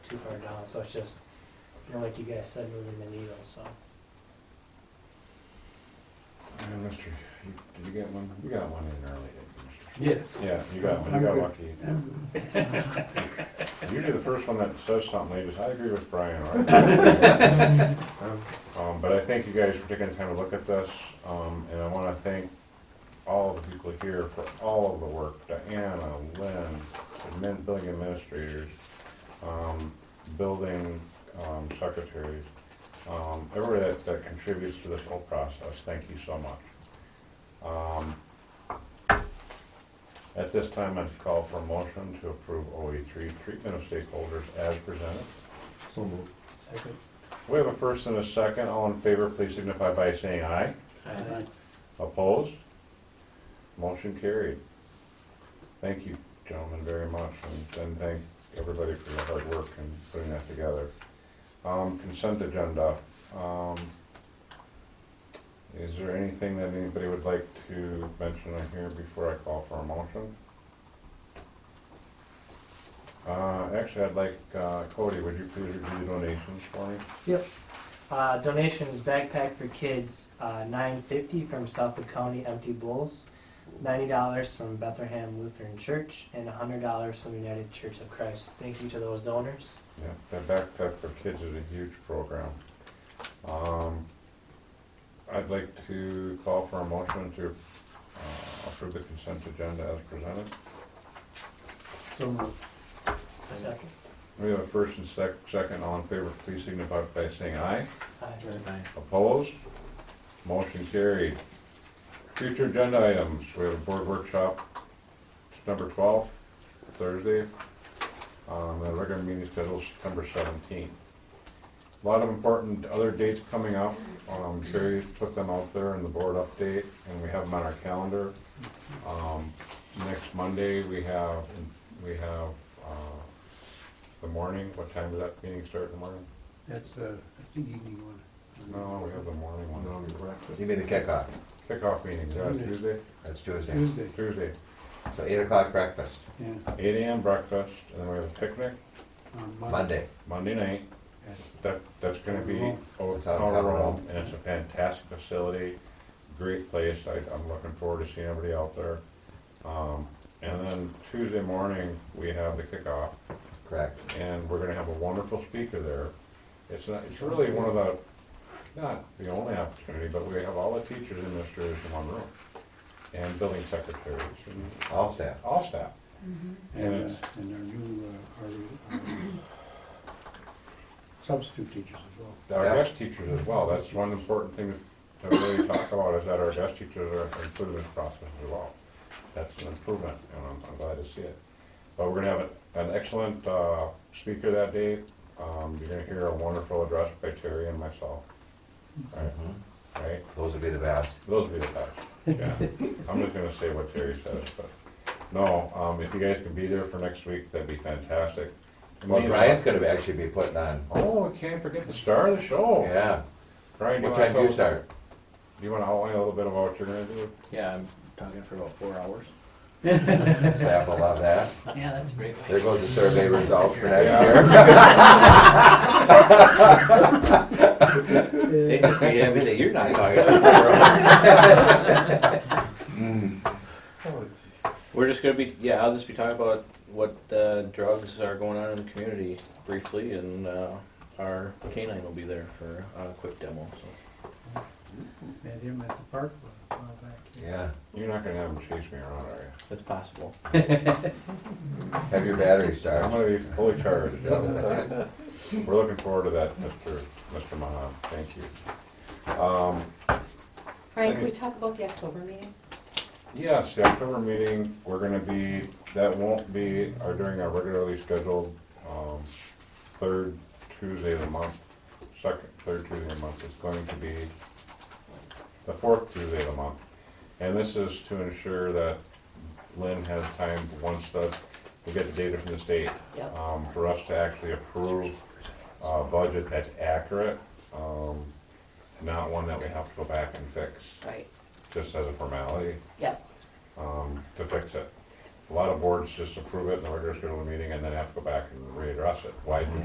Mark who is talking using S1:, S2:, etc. S1: too far down, so it's just, you know, like you guys said, moving the needle, so.
S2: And Mr., Uh, you- did you get one? You got one in early, didn't
S3: Yes.
S2: you? Yeah, you got one, you got lucky. Usually the first one that says something, they just, I agree with Brian, or I- Um, but I thank you guys for taking the time to look at this, um, and I wanna thank all of the people here for all of the work, Diana, Lynn, the men, building administrators, um, building, um, secretaries, um, everybody that, that contributes to this whole process, thank you so much. Um, At this time, I'd call for a motion to approve OE three, treatment of stakeholders as presented.
S3: So moved.
S1: Second.
S2: We have a first and a second, all in favor, please signify by saying aye. Opposed? Motion carried. Thank you, gentlemen, very much, and- and thank everybody for your hard work in putting that together. Um, Consent agenda. Um, Is there anything that anybody would like to mention on here before I call for a motion? Uh, Actually, I'd like, uh, Cody, would you please review the donations for me?
S1: Yep. Uh, donations, backpack for kids, uh, nine fifty from Southwood County Empty Bowls, ninety dollars from Bethlehem Lutheran Church, and hundred dollars from United Church of Christ. Thank you to those donors.
S2: Yeah, that backpack for kids is a huge program. Um, I'd like to call for a motion to uh, approve the consent agenda as presented.
S3: So moved.
S1: Second.
S2: We have a first and sec- second, all in favor, please signify by saying aye.
S1: Aye.
S2: Opposed? Motion carried. Future agenda items, we have a board workshop, September twelfth, Thursday. Um, the regular meeting scheduled September seventeenth. A Lot of important other dates coming up, um, Terry put them out there in the board update, and we have them on our calendar. Um, next Monday, we have, we have, uh, the morning, what time does that meeting start in the morning?
S3: That's, uh, I think evening one.
S2: No, we have the morning one.
S4: You mean the kickoff?
S2: Kickoff meeting, is that
S3: Monday.
S2: Tuesday?
S4: That's Tuesday.
S3: Tuesday,
S2: Tuesday,
S5: Mm.
S4: So eight o'clock breakfast,
S3: yeah.
S2: eight AM breakfast, and then we have a picnic
S3: on uh,
S4: Monday.
S2: Monday night.
S3: Yes.
S2: That, that's gonna be over
S4: It's out in Powder Hall.
S2: and it's a fantastic facility, great place. I, I'm looking forward to seeing everybody out there. Um, and then Tuesday morning, we have the kickoff,
S4: Correct.
S2: and we're gonna have a wonderful speaker there. It's not, it's really one of the, not the only opportunity, but we have all the teachers and administrators in one room, and building secretaries, and
S4: All staff.
S2: all staff.
S3: And, uh,
S2: Yes.
S3: and our new, uh, our, our substitute teachers as well.
S2: our
S4: Yeah.
S2: guest teachers as well, that's one important thing to really talk about, is that our guest teachers are included in this process as well. That's an improvement, and I'm, I'm glad to see it. But we're gonna have an an excellent, uh, speaker that day, um, you're gonna hear a wonderful address by Terry and myself. Right,
S4: Mhm.
S2: right,
S4: Those would be the best.
S2: those will be the best, yeah, I'm just gonna say what Terry says, but, no, um, if you guys can be there for next week, that'd be fantastic.
S4: Well, Brian's gonna actually be putting on,
S2: Oh, I can't forget the star of the show.
S4: yeah.
S2: Brian, do
S4: What
S2: Oh. you wanna
S4: time do
S2: tell-
S4: you start?
S2: Do you want to outline a little bit about what you're going to do?
S6: Yeah, I'm talking for about four hours.
S4: Staff will love that.
S5: Yeah, that's a great way.
S4: There goes the survey results for next
S2: Yeah.
S4: year.
S6: They just made it, that you're not talking for four hours. We're just gonna be, yeah, I'll just be talking about what uh, drugs are going on in the community briefly, and uh, our canine will be there for uh, a quick demo, so.
S3: Met him at the park a while back.
S4: Yeah.
S2: You're not going to have them chase me around, are you?
S6: It's possible.
S4: Have your battery
S2: I'm
S4: start.
S2: going to be fully charged. We're looking forward to that, Mr. Mr. Mahan. Thank you. Um,
S7: Brian, can we talk about the October meeting?
S2: yes, the October meeting, we're going to be, that won't be our, during our regularly scheduled um, third Tuesday of the month, second, third Tuesday of the month. It's going to be the fourth Tuesday of the month. And this is to ensure that Lynn has time, once the, we get the data from the state,
S7: Yep.
S2: um, for us to actually approve a budget that's accurate, um, not one that we have to go back and fix,
S7: Right,
S2: just as a formality,
S7: yep,
S2: um, to fix it. A lot of boards just approve it, and the regular schedule meeting, and then have to go back and readdress it. Why do